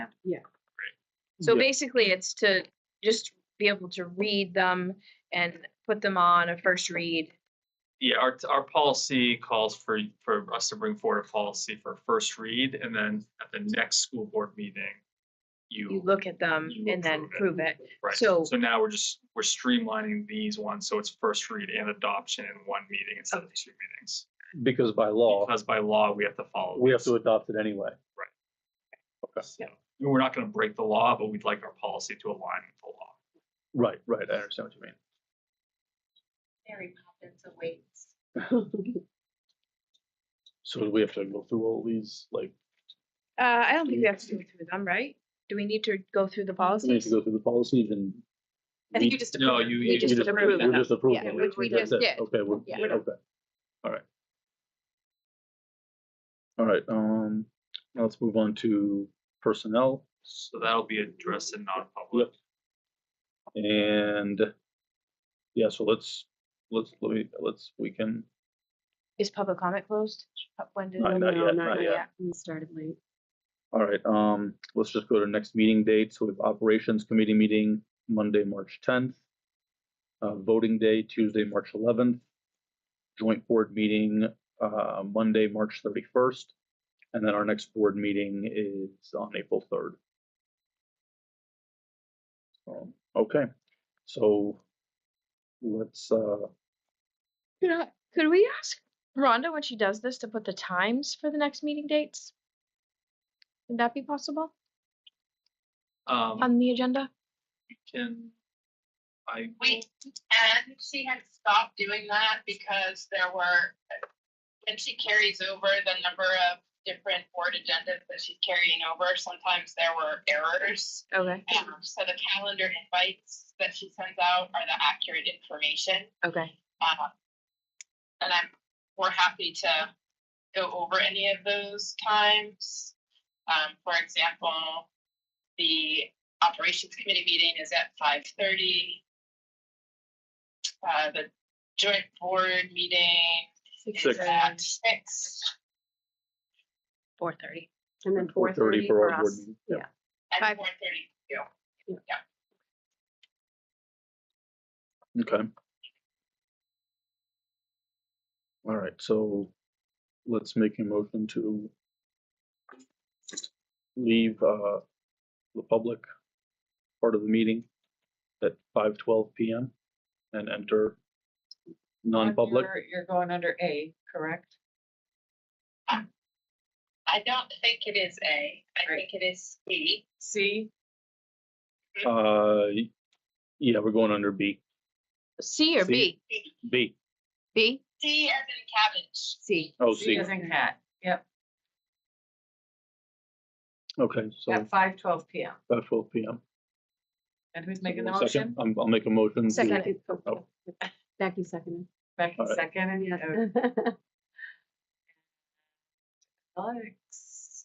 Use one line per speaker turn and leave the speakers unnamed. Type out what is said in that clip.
Yeah.
So
Yeah.
basically, it's to just be able to read them and put them on a first read.
Yeah, our, our policy calls for, for us to bring forward a policy for first read, and then at the next school board meeting,
You
you,
look at them
you
and then
approve
prove it.
right, so
so-
now we're just, we're streamlining these ones, so it's first read and adoption in one meeting instead of two meetings.
because by law,
Because by law, we have to follow.
we have
these.
to adopt it anyway.
So, We're not gonna break the law, but we'd like our policy to align with the law.
Right, right, I understand what you mean.
Mary Poppins awaits.
So do we have to go through all these, like,
Uh, I don't think we have to go through them, right? Do we need to go through the
we need to
policies?
go through the policies and?
I think
we-
you just.
No,
approved.
you-
We
you
just
we
approved
We're
them.
just approving.
Yeah,
it.
which we
That's
just
it.
did.
Okay, we're,
Yeah.
okay. All right. All right, um, now let's move on to personnel
So that'll be addressed in non-public.
and, yeah, so let's, let's, let me, let's, we can,
Is public comment closed? Uh, When did?
Not-
when-
not
No,
yet, not yet.
We started late.
All right, um, let's just go to next meeting date. So we have operations committee meeting Monday, March tenth. Uh, voting day Tuesday, March eleventh. Joint board meeting, uh, Monday, March thirty-first. And then our next board meeting is on April third. Um, okay, so let's, uh,
You know, could we ask Rhonda when she does this to put the times for the next meeting dates? Would that be possible
Um,
on the agenda?
can, I,
We, and she had stopped doing that because there were, when she carries over the number of different board agendas that she's carrying over, sometimes there were errors.
Okay,
Um, So the calendar invites that she sends out are the accurate information.
okay.
Uh, And I'm, we're happy to go over any of those times. Um, for example, the operations committee meeting is at five thirty. Uh, the joint board meeting is
Six.
at six,
uh, Four thirty.
And then
four thirty for our board
us.
meeting.
Yeah.
and
Five.
four thirty.
Okay. All right, so let's make a motion to leave uh, the public part of the meeting at five twelve PM and enter non-public.
You're going under A, correct?
I don't think it is A, I
Right.
think it is C.
C,
Uh, y- yeah, we're going under B.
C or
C.
B?
B.
B?
C as in cabbage.
C.
Oh,
C
C.
as in cat, yep,
Okay, so
at five twelve P M.
five twelve PM.
And who's making the
Someone second?
motion?
I'm- I'll make a motion. to-
Second.
It- oh,
Oh.
Becky seconded.
Becky
Alright.
second, and
Yeah.
uh, Alex.